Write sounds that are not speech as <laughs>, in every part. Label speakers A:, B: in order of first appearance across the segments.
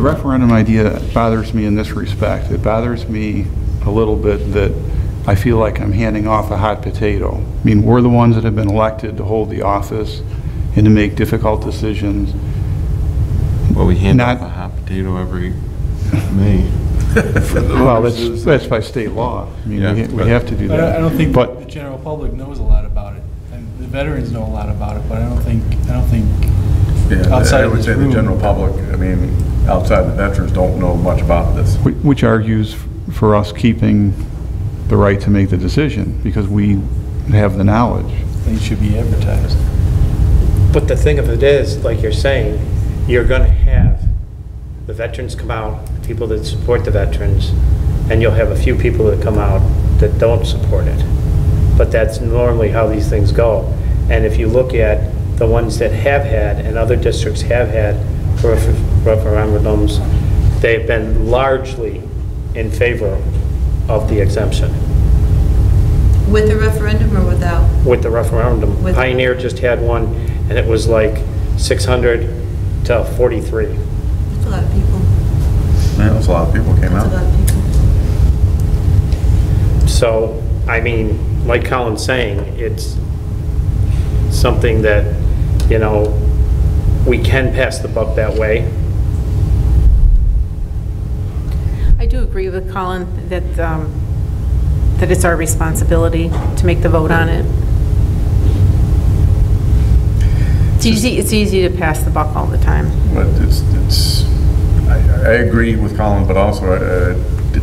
A: referendum idea bothers me in this respect. It bothers me a little bit that I feel like I'm handing off a hot potato. I mean, we're the ones that have been elected to hold the office and to make difficult decisions.
B: Well, we hand
A: Not-
B: out a hot potato every May.
A: Well, that's, that's by state law. I mean, we ha- we have to do
C: But I
A: that.
C: I don't think
A: But
C: the general public knows a lot about it, and the veterans know a lot about it, but I don't think, I don't think,
D: Yeah,
C: Outside
D: I
C: of
D: would
C: this
D: say the
C: room.
D: general public, I mean, outside the veterans, don't know much about this.
A: Whi- Which argues for us keeping the right to make the decision, because we have the knowledge.
C: things should be advertised.
E: But the thing of it is, like you're saying, you're going to have the veterans come out, people that support the veterans, and you'll have a few people that come out that don't support it. But that's normally how these things go. And if you look at the ones that have had, and other districts have had refer- referendums, they've been largely in favor of the exemption.
F: With the referendum or without?
E: with the referendum.
F: With-
E: Pioneer just had one, and it was like 600 to 43.
F: That's a lot of people.
D: Yeah, That's a lot of people came
F: That's a lot
D: out.
F: of people.
E: So, I mean, like Colin's saying, it's something that, you know, we can pass the buck that way.
G: I do agree with Colin that, um, that it's our responsibility to make the vote on it. It's easy, it's easy to pass the buck all the time.
D: But it's, it's, I, I agree with Colin, but also I uh,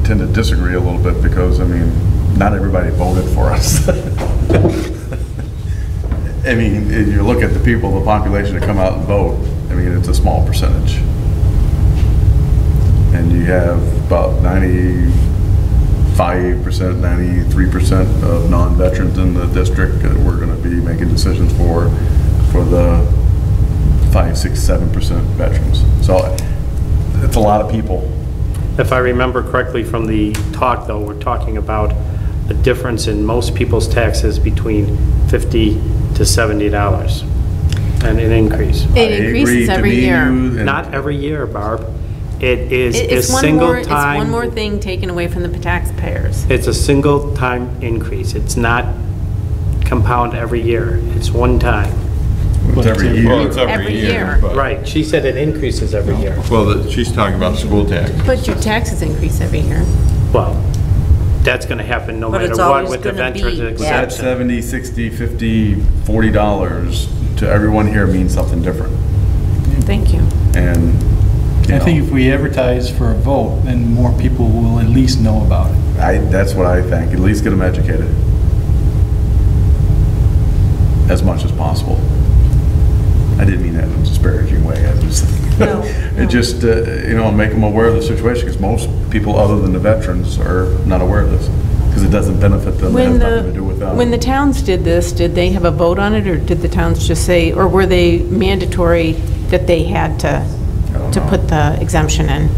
D: tend to disagree a little bit because, I mean, not everybody voted for us. <laughs> I mean, if you look at the people, the population that come out and vote, I mean, it's a small percentage. And you have about ninety-five percent, ninety-three percent of non-veterans in the district that we're gonna be making decisions for, for the five, six, seven percent veterans. So it's a lot of people.
E: If I remember correctly from the talk, though, we're talking about a difference in most people's taxes between 50 to $70, and an increase.
D: I
G: It
D: agree,
G: increases
D: to
G: every
D: me, you,
G: year.
D: and-
E: Not every year, Barb. It is
G: It-
E: a
G: It's one more,
E: single
G: it's
E: time.
G: one more thing taken away from the taxpayers.
E: It's a single time increase. It's not compound every year. It's one time.
D: It's every
B: Well, it's
D: year.
G: Every
B: every year.
G: year.
B: but-
E: Right, she said it increases every year.
B: Well, the- she's talking about school tax.
G: But your taxes increase every year.
E: Well, that's going to happen no
F: But
E: matter
F: it's
E: what
F: always
E: with the
F: gonna
E: veterans
F: be
D: But that
E: exemption.
D: seventy, sixty, fifty, forty dollars to everyone here means something different.
G: Thank you.
D: And, you
C: I think
D: know,
C: if we advertise for a vote, then more people will at least know about it.
D: I, that's what I think. At least get them educated. As much as possible. I didn't mean that in a disparaging way. I just, <laughs>
F: No,
D: it just, uh, you know, make them aware of the situation because most people other than the veterans are not aware of this because it doesn't benefit them. It has
G: When
D: nothing to do
G: the,
D: with them.
G: when the towns did this, did they have a vote on it, or did the towns just say, or were they mandatory that they had to,
D: don't
G: to
D: know.
G: put the exemption in?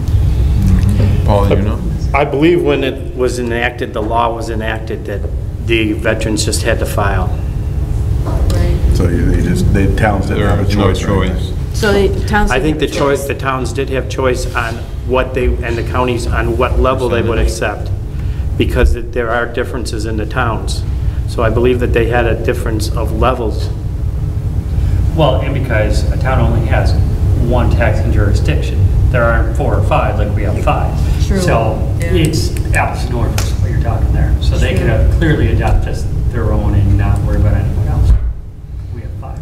B: Paul, you know?
E: I believe when it was enacted, the law was enacted, that the veterans just had to file.
D: So you- they just, they towns didn't
B: There
D: have a
B: is no
D: choice. or anything.
B: choice.
G: So the towns.
E: I think the
G: didn't have a
E: choice, the towns did have choice on what they, and the counties, on what level they would accept, because that there are differences in the towns. So I believe that they had a difference of levels.
H: Well, and because a town only has one taxing jurisdiction, there aren't four or five like we have five.
F: True.
H: So
F: Yeah.
H: it's apples and oranges, what you're talking there. So they could have clearly adopt just their own and not worry about anyone else. We have five.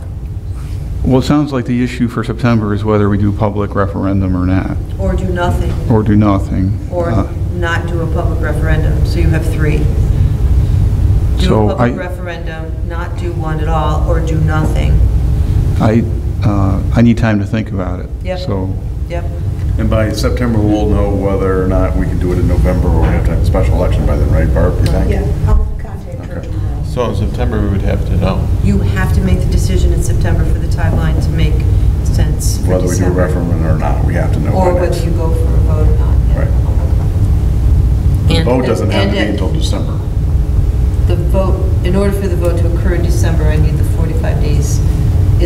A: Well, it sounds like the issue for September is whether we do public referendum or not,
F: Or do nothing,
A: or do nothing.
F: or
A: Uh,
F: not do a public referendum, so you have three. Do
A: So
F: a
A: I-
F: public referendum, not do one at all, or do nothing.
A: I, uh, I need time to think about it.
F: Yep.
A: So,
F: Yep.
D: And by September, we'll know whether or not we can do it in November or we have to have a special election by then, right, Barb, you
G: Uh,
D: think?
F: I'll contact
D: her Okay.
F: tomorrow.
B: So in September, we would have to know.
F: You have to make the decision in September for the timeline to make sense for
D: Whether we do a
F: December.
D: referendum or not, we have to know. by
F: Or
D: next-
F: whether you go for a vote or not. yeah.
D: Right. The vote doesn't have to be until December.
F: The vote, in order for the vote to occur in December, I need the 45 days